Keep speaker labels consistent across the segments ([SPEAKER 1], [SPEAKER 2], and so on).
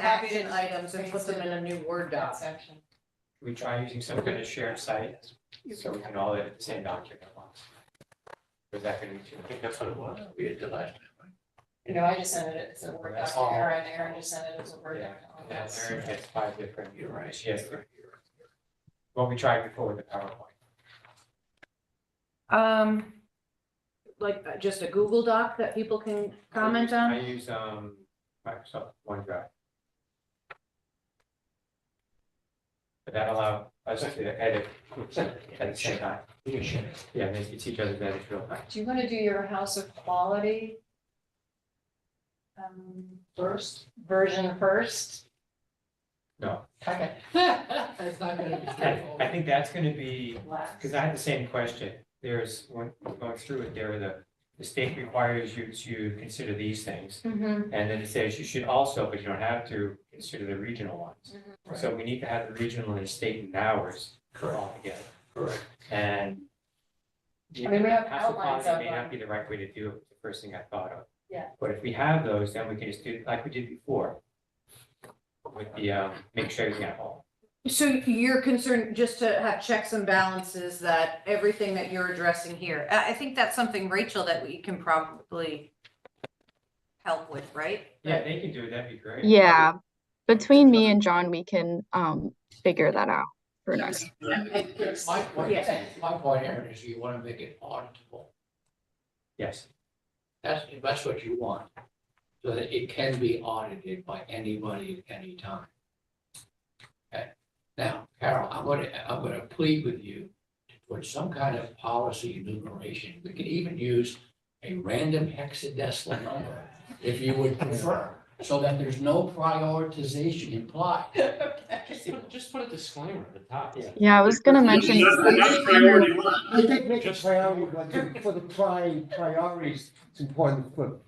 [SPEAKER 1] action items and put them in a new Word
[SPEAKER 2] that
[SPEAKER 1] doc.
[SPEAKER 2] section.
[SPEAKER 3] We try using some kind of shared site, so we can all edit the same document at once. Is that gonna be too?
[SPEAKER 4] I think that's what it was. We did the last time.
[SPEAKER 2] You know, I just sent it as a Word doc,
[SPEAKER 3] That's all.
[SPEAKER 2] Aaron, Aaron just sent it as a Word
[SPEAKER 3] Yeah,
[SPEAKER 2] doc.
[SPEAKER 3] and that Aaron gets five different.
[SPEAKER 4] You're right.
[SPEAKER 3] She has,
[SPEAKER 4] You're right, you're right.
[SPEAKER 3] what we tried before with the PowerPoint.
[SPEAKER 1] Um, like uh, just a Google Doc that people can comment on?
[SPEAKER 3] I use, um, Microsoft OneDrive. But that allow us to edit at the same time.
[SPEAKER 4] You can share it.
[SPEAKER 3] Yeah, they can teach others that it's real time.
[SPEAKER 2] Do you wanna do your House of Quality? Um, first, version first?
[SPEAKER 3] No.
[SPEAKER 2] Okay.
[SPEAKER 5] It's not gonna be
[SPEAKER 3] I, I
[SPEAKER 5] straightforward.
[SPEAKER 3] think that's gonna be,
[SPEAKER 2] Last.
[SPEAKER 3] because I had the same question. There's, when going through it, there, the, the state requires you to consider these things.
[SPEAKER 2] Mhm.
[SPEAKER 3] And then it says you should also, but you don't have to, consider the regional ones.
[SPEAKER 2] Mm-hmm.
[SPEAKER 4] Right.
[SPEAKER 3] So we need to have the regional and the state and ours
[SPEAKER 4] Correct,
[SPEAKER 3] all together.
[SPEAKER 4] correct.
[SPEAKER 3] And.
[SPEAKER 2] I mean, we have
[SPEAKER 3] House of
[SPEAKER 2] outlines
[SPEAKER 3] Commons
[SPEAKER 2] of
[SPEAKER 3] May
[SPEAKER 2] them.
[SPEAKER 3] not be the right way to do it, was the first thing I thought of.
[SPEAKER 2] Yeah.
[SPEAKER 3] But if we have those, then we can just do like we did before. With the, um, make sure you have all.
[SPEAKER 1] So you're concerned just to have checks and balances that everything that you're addressing here, I, I think that's something, Rachel, that we can probably help with, right?
[SPEAKER 3] Yeah, they can do it, that'd be great.
[SPEAKER 6] Yeah, between me and John, we can um figure that out for next.
[SPEAKER 5] My point,
[SPEAKER 1] Yeah.
[SPEAKER 5] my point, Aaron, is you wanna make it auditable.
[SPEAKER 3] Yes,
[SPEAKER 5] That's, that's what you want. So that it can be audited by anybody at any time. Okay, now, Carol, I'm gonna, I'm gonna plead with you to put some kind of policy enumeration. We could even use a random hexadecimal number if you would prefer, so that there's no prioritization implied.
[SPEAKER 4] Just, just put a disclaimer at the top.
[SPEAKER 3] Yeah.
[SPEAKER 6] Yeah, I was gonna
[SPEAKER 7] That's
[SPEAKER 6] mention,
[SPEAKER 7] that's priority one.
[SPEAKER 8] I think make it
[SPEAKER 4] Just-
[SPEAKER 8] priority, but the- for the pri- priorities, it's important for,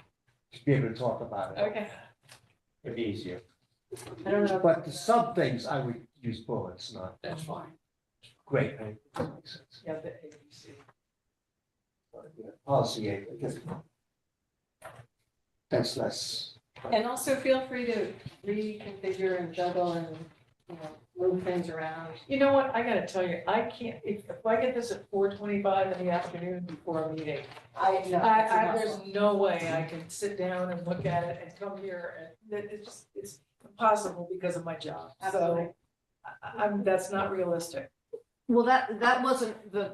[SPEAKER 8] to be able to talk about it.
[SPEAKER 2] Okay.
[SPEAKER 3] it'd be easier.
[SPEAKER 2] I don't know.
[SPEAKER 8] But for some things, I would use bullets, not
[SPEAKER 5] That's fine.
[SPEAKER 8] great. I- that makes sense.
[SPEAKER 2] Yeah, the ABC.
[SPEAKER 8] But, yeah, Policy, I guess. That's less.
[SPEAKER 2] And also feel free to reconfigure and juggle and, you know, move things around.
[SPEAKER 9] You know what, I gotta tell you, I can't, if, if I get this at four twenty-five in the afternoon before a meeting,
[SPEAKER 2] I know.
[SPEAKER 9] I, I, there's no way I can sit down and look at it and come here and, that, it's just, it's impossible because of my job, so.
[SPEAKER 2] Absolutely.
[SPEAKER 9] I- I'm, that's not realistic.
[SPEAKER 1] Well, that, that wasn't the,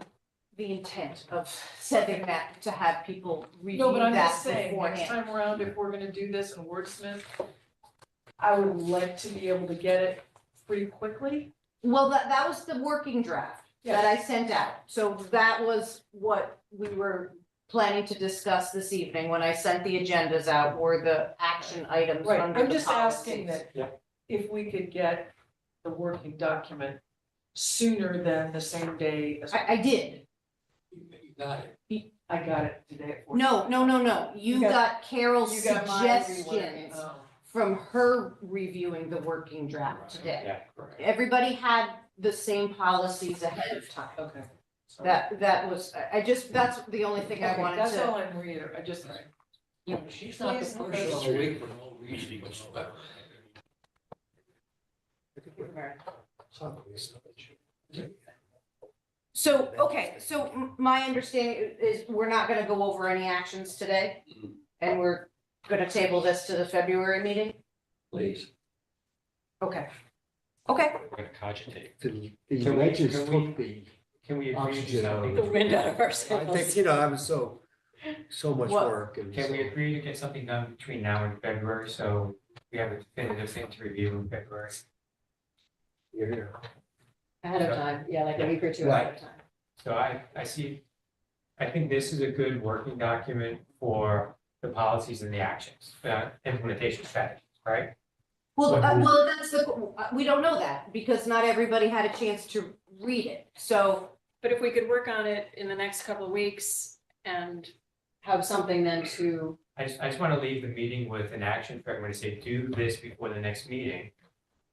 [SPEAKER 1] the intent of setting that, to have people
[SPEAKER 9] No,
[SPEAKER 1] review
[SPEAKER 9] but I'm
[SPEAKER 1] that
[SPEAKER 9] just saying, next
[SPEAKER 1] beforehand.
[SPEAKER 9] time around, if we're gonna do this in wordsmith, I would like to be able to get it pretty quickly.
[SPEAKER 1] Well, that, that was the working draft that I sent out, so that was what we were planning to discuss this evening when I sent the agendas out, were the action items
[SPEAKER 9] Right,
[SPEAKER 1] under
[SPEAKER 9] I'm
[SPEAKER 1] the
[SPEAKER 9] just asking
[SPEAKER 1] policies.
[SPEAKER 9] that
[SPEAKER 3] Yeah.
[SPEAKER 9] if we could get the working document sooner than the same day as,
[SPEAKER 1] I, I did.
[SPEAKER 5] You you got it.
[SPEAKER 9] I got it today at four.
[SPEAKER 1] No, no, no, no. You
[SPEAKER 9] You got-
[SPEAKER 1] got Carol's
[SPEAKER 9] You got mine, you were-
[SPEAKER 1] suggestions
[SPEAKER 9] oh.
[SPEAKER 1] from her reviewing the working draft today.
[SPEAKER 3] Yeah,
[SPEAKER 5] Correct.
[SPEAKER 1] Everybody had the same policies ahead of time.
[SPEAKER 9] Okay.
[SPEAKER 3] so-
[SPEAKER 1] That, that was, I- I just, that's the only thing I
[SPEAKER 9] Okay,
[SPEAKER 1] wanted
[SPEAKER 9] That's
[SPEAKER 1] to,
[SPEAKER 9] all I'm reading, I just,
[SPEAKER 5] She's not the
[SPEAKER 9] Please, no.
[SPEAKER 5] person of the week for no reason whatsoever.
[SPEAKER 1] so, okay, so m- my understanding is we're not gonna go over any actions today. And we're gonna table this to the February meeting?
[SPEAKER 5] Please.
[SPEAKER 1] Okay. Okay,
[SPEAKER 4] We're gonna cogitate.
[SPEAKER 8] The
[SPEAKER 3] Can we-
[SPEAKER 8] legends
[SPEAKER 3] can we-
[SPEAKER 8] took the,
[SPEAKER 3] Can we agree to
[SPEAKER 8] Oxygen
[SPEAKER 3] something?
[SPEAKER 8] out of
[SPEAKER 2] wind out of our
[SPEAKER 8] I think, you know, I was so, so much
[SPEAKER 1] What?
[SPEAKER 8] work and.
[SPEAKER 3] Can we
[SPEAKER 8] so-
[SPEAKER 3] agree to get something done between now and February, so we have a definitive thing to review in February?
[SPEAKER 8] You're here.
[SPEAKER 2] Ahead of time, yeah, like a week or two ahead of time.
[SPEAKER 3] So I, I see, I think this is a good working document for the policies and the actions, uh, implementation strategies, right?
[SPEAKER 1] well,
[SPEAKER 3] Like
[SPEAKER 1] uh,
[SPEAKER 3] we-
[SPEAKER 1] well, that's the, uh, we don't know that because not everybody had a chance to read it, so.
[SPEAKER 2] But if we could work on it in the next couple of weeks and. Have something then to,
[SPEAKER 3] I just, I just want to leave the meeting with an action for everyone to say, do this before the next meeting.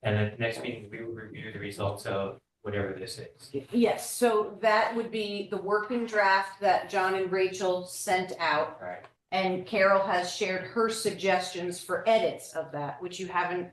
[SPEAKER 3] And at the next meeting, we will review the results of whatever this is.
[SPEAKER 1] Yes, so that would be the working draft that John and Rachel sent out.
[SPEAKER 3] Right.
[SPEAKER 1] And Carol has shared her suggestions for edits of that, which you haven't